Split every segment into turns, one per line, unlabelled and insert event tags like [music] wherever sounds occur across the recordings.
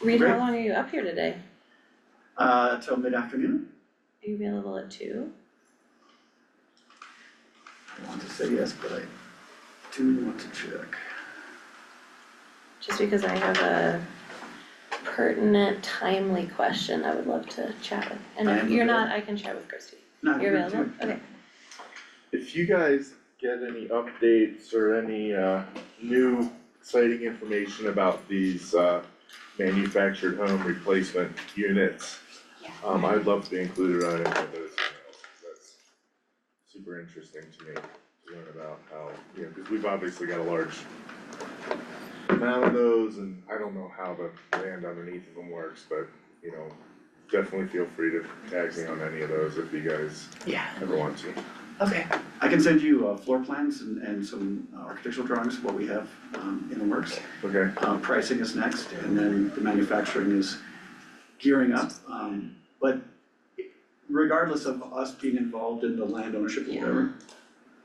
Reed, how
Great.
long are you up here today?
uh, until mid-afternoon.
Are you available at two?
I want to say yes, but I do want to check.
Just because I have a pertinent, timely question I would love to chat with. And
I
if
am
you're not, I can chat with Christie.
Not
You're
here too.
available? Okay.
If you guys get any updates or any uh new exciting information about these uh manufactured home replacement units.
Yeah.
Um, I'd love to be included on any of those emails, 'cause that's super interesting to me, to learn about how, you know, cause we've obviously got a large amount of those and I don't know how the land underneath of them works, but, you know, definitely feel free to tag me on any of those if you guys
Yeah.
ever want to.
Okay. I can send you uh, floor plans and, and some uh, architectural drawings of what we have um, in the works.
Okay,
Uh, pricing is next, and then the manufacturing is gearing up. Um, but regardless of us being involved in the land ownership or whatever,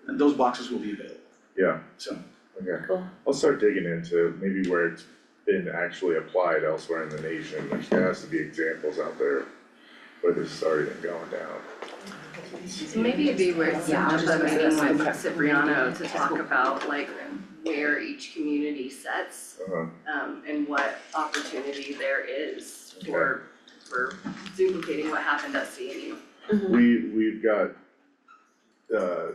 those boxes will be available,
yeah,
so.
okay.
Cool.
I'll start digging into maybe where it's been actually applied elsewhere in the nation, like there has to be examples out there where this has already been going down.
So maybe it'd be worth
Yeah, I'll
setting up a
just-
meeting
okay.
with Cipriano to talk about like where each community sets
Uh-huh,
um and what opportunity there is for for duplicating what happened at E. CNU.
Mhm.
we, we've got, uh,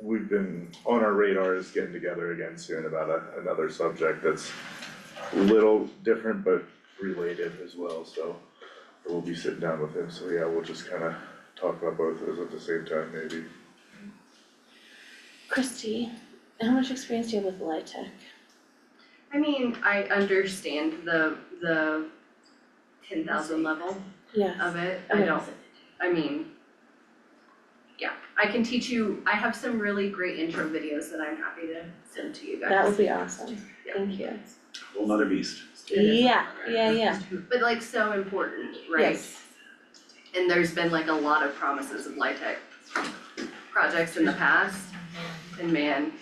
we've been, on our radar is getting together again soon about a, another subject that's a little different but related as well, so we'll be sitting down with him, so yeah, we'll just kinda talk about both of those at the same time maybe.
Christie, how much experience do you have with light tech?
I mean, I understand the the ten thousand level
Yes.
of it, I don't, I mean. Yeah, I can teach you, I have some really great intro videos that I'm happy to send to you guys.
That would be awesome.
Yeah.
Thank you.
Whole nother beast.
It is.
Yeah, yeah, yeah.
But like so important, right?
Yes.
And there's been like a lot of promises of LIHTC projects in the past,
Mm-hmm.
and man,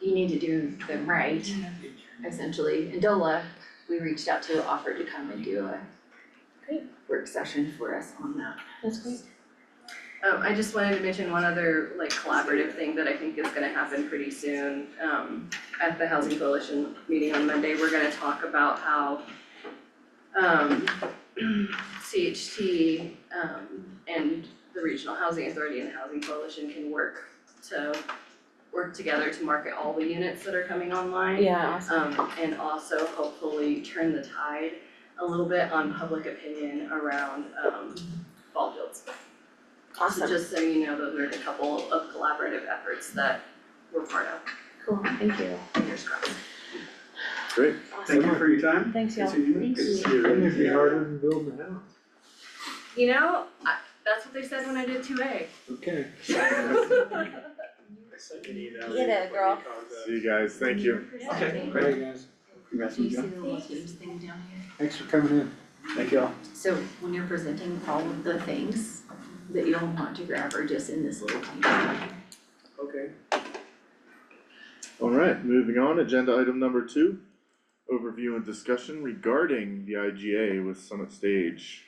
you need to do them right,
Mm-hmm.
essentially. And Dola, we reached out to offer to come and do a
Great.
work session for us on that.
That's great.
um, I just wanted to mention one other like collaborative thing that I think is gonna happen pretty soon. Um, at the Housing Coalition meeting on Monday, we're gonna talk about how um, [clears throat] CHT, um, and the Regional Housing Authority and the Housing Coalition can work to work together to market all the units that are coming online.
Yeah, awesome.
Um, and also hopefully turn the tide a little bit on public opinion around, um, ball fields. So
Awesome.
just so you know, those are a couple of collaborative efforts that we're part of,
Cool. Thank you.
fingers crossed.
Great.
Thank
Awesome.
you for your time.
Thanks,
Good
y'all.
seeing you. Good to see you.
Wouldn't it be harder than building a house?
You know, I, that's what they said when I did two A.
Okay.
Get it, girl.
See you guys, thank you.
Okay,
All
great.
right, guys,
Congrats,
Do you see
Mika.
the little teams thing down here?
thanks for coming in.
Thank you all.
So when you're presenting all of the things that you'll want to grab are just in this little team.
[laughs]
Okay.
Alright, moving on, agenda item number two, overview and discussion regarding the IGA with Summit Stage.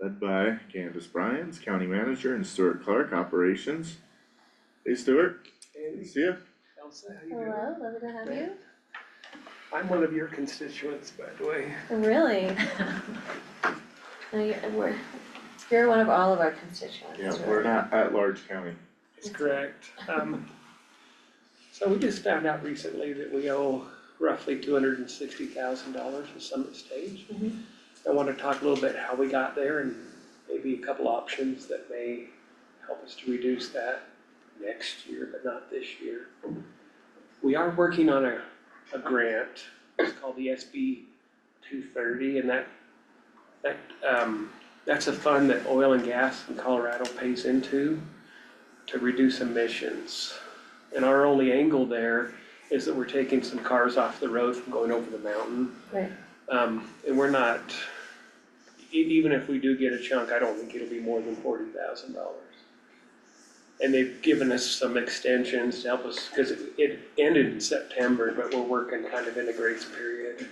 Led by Candace Bryans, County Manager, and Stuart Clark, Operations. Hey Stuart, good to
Andy,
see ya.
Elsa, how you doing?
Hello, lovely to have you.
I'm one of your constituents, by the way.
Really? No, you're, we're, you're one of all of our constituents,
Yeah,
right?
we're not at large county.
That's correct. Um, so we just found out recently that we owe roughly two hundred and sixty thousand dollars to Summit Stage.
Mhm.
I wanna talk a little bit how we got there and maybe a couple options that may help us to reduce that next year, but not this year. We are working on a, a grant, it's called the SB two thirty, and that, that, um, that's a fund that oil and gas in Colorado pays into to reduce emissions. And our only angle there is that we're taking some cars off the road from going over the mountain.
Right.
Um, and we're not, e- even if we do get a chunk, I don't think it'll be more than forty thousand dollars. And they've given us some extensions to help us, cause it, it ended in September, but we're working kind of in a grace period.